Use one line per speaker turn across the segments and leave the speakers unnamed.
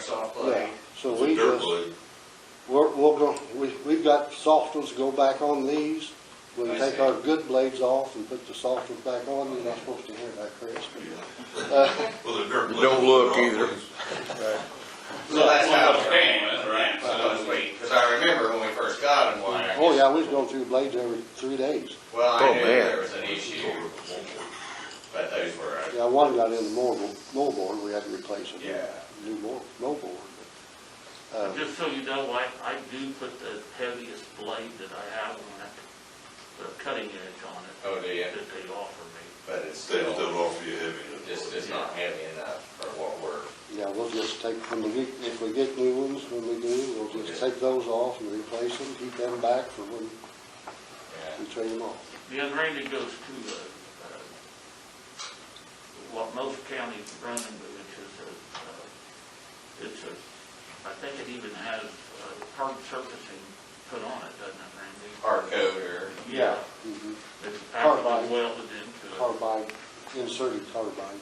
soft
Yeah,
blade.
so
It's a
we
dirt
just,
blade.
we're, we're gonna, we, we've got soft ones to go back on these. We'll
I
take
see.
our good blades off and put the soft ones back on, you're not supposed to hear that, Chris.
Well, the dirt blade.
Don't look either.
So that's how.
Well, that's right.
Because I remember when we first got them, why, I
Oh,
guess-
yeah, we was going through blades every three days.
well, I
Oh,
knew
man.
there was an issue, but those were, uh,
Yeah, one got in the mold, moldboard, we had to replace it.
Yeah.
New mold, moldboard. but, um,
Just so you know, I, I do put the heaviest blade that I have on it, the cutting edge on it,
oh, do you?
that they offer me.
But it's
Still,
still,
still offer you heavy. that's
just,
what it
it's not heavy enough for what we're,
Yeah, we'll just take, when we get, if we get new ones, when we do, we'll just
Okay.
take those off and replace them, keep them back for when
yeah.
we trade them off.
The unrated goes to, uh, uh, what most counties run, which is a, uh, it's a, I think it even has uh, hard surfacing put on it, doesn't it, Randy?
Hard coat or,
Yeah.
Mhm.
It's
Carbide.
actually welded into it.
Carbide, inserted carbide.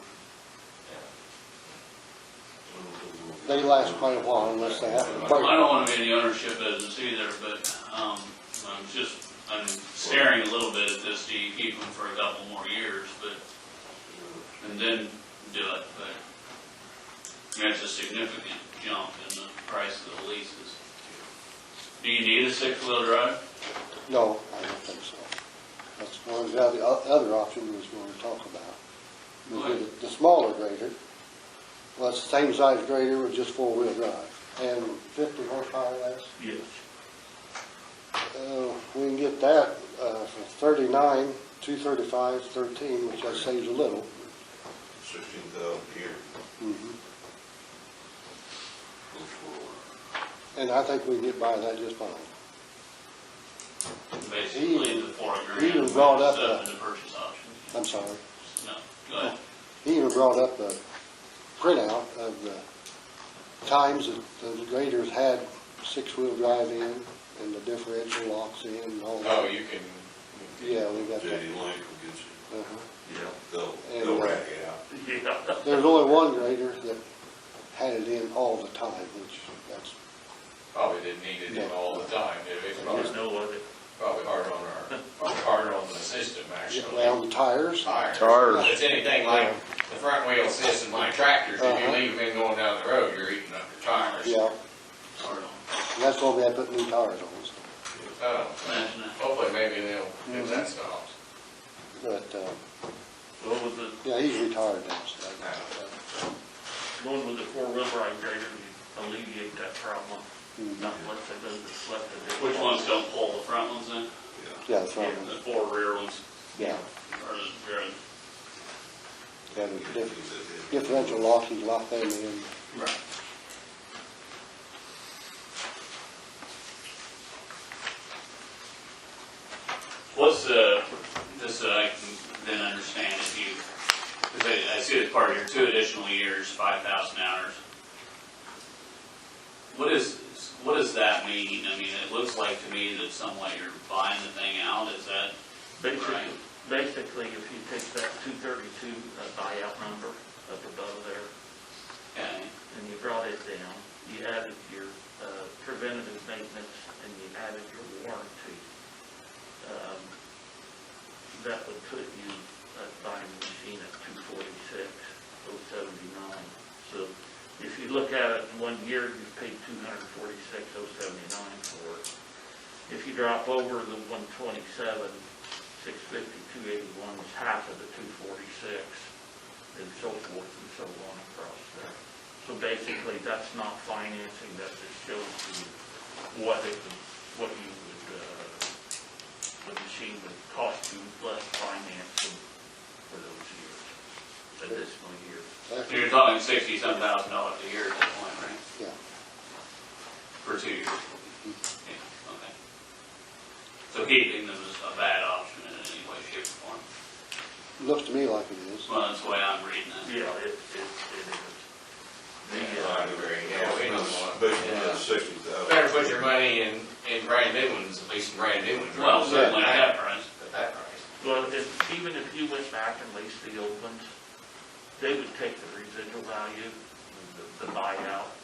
was.
They last quite a while unless they have to
I
break.
don't wanna be in the ownership business either, but, um, I'm just, I'm staring a little bit at this, do you keep them for a couple more years, but, and then do it, but, I mean, it's a significant jump in the price of the leases. Do you need a six-wheel drive?
No, I don't think so. That's one of the other, other option we was gonna talk about. We
What?
did The smaller grader, well, it's the same size grader with just four-wheel drive and fifty horsepower less.
Yes.
Uh, We can get that uh, for 39, 235, 13, which that saves a little. Mm-hmm.
Sixteen thousand here. goes for-
And I think we can get by that just fine.
Basically, the four grand.
even brought up
stuff
a-
in The purchase option,
I'm sorry.
no, go ahead.
He even brought up a printout of the times that the graders had six-wheel drive in and the differential locks in and all
oh,
that.
you can,
Yeah, we got that.
JD Link will get you.
Uh-huh.
They'll,
And,
they'll
uh,
rack it out.
Yeah.
There's only one grader that had it in all the time, which that's,
probably didn't need it in all the time, did it? It's
There's
probably,
no other.
probably hard on our, probably hard on the system, actually.
around the tires.
Tires.
Tires.
If it's anything like the front wheel system, like tractors, if you
Uh-huh.
leave them in going down the road, you're eating up your tires.
Yeah,
Sorry,
and that's why we had to put new tires on. so.
Oh,
imagine that.
hopefully maybe they'll,
Mm-hmm.
if that stops.
But, uh,
What was the,
Yeah, he's retired now, so.
going with the four-wheel drive grader, you alleviate that problem, not let the, those that slept in it.
Which ones don't pull, the front ones in?
Yeah, that's
Yeah,
right.
The four rear ones,
Yeah,
or the rear ones.
yeah, the dif-
Get that in.
differential lock, he's locked them in.
Right. What's the, just so I can then understand if you, because I, I see it's part of your two additional years, five thousand hours. What is, what does that mean? I mean, it looks like to me that somewhat you're buying the thing out, is that,
Basically,
Right.
basically, if you take that two thirty-two uh, buyout number up above there,
okay,
and you brought it down, you added your uh, preventative maintenance, and you added your warranty, um, that would put you at buying the machine at two forty-six, oh seventy-nine. So if you look at it in one year, you've paid two hundred forty-six, oh seventy-nine for it. If you drop over the one twenty-seven, six fifty, two eighty-one is half of the two forty-six, and so forth and so on across there. So basically, that's not financing, that just shows you what it, would- what you would, uh, the machine would cost you less financing for those years, additional years.
so you're talking sixty-some thousand dollars a year at that point, right?
Yeah,
For two years? Mm-hmm. Yeah, okay. So keeping them is a bad option in any way, shape, or form.
looks to me like it is.
Well, that's the way I'm reading it.
Yeah, it, it, it is. The,
Yeah, I
uh,
agree, yeah, we don't want.
Basically,
yeah.
that's sixty thousand.
Better put your money in, in brand new ones, at least in brand new ones.
Well, certainly at that price.
At that price.
Well, if, even if you went back and leased the old ones, they would take the residual value, the- the buyout,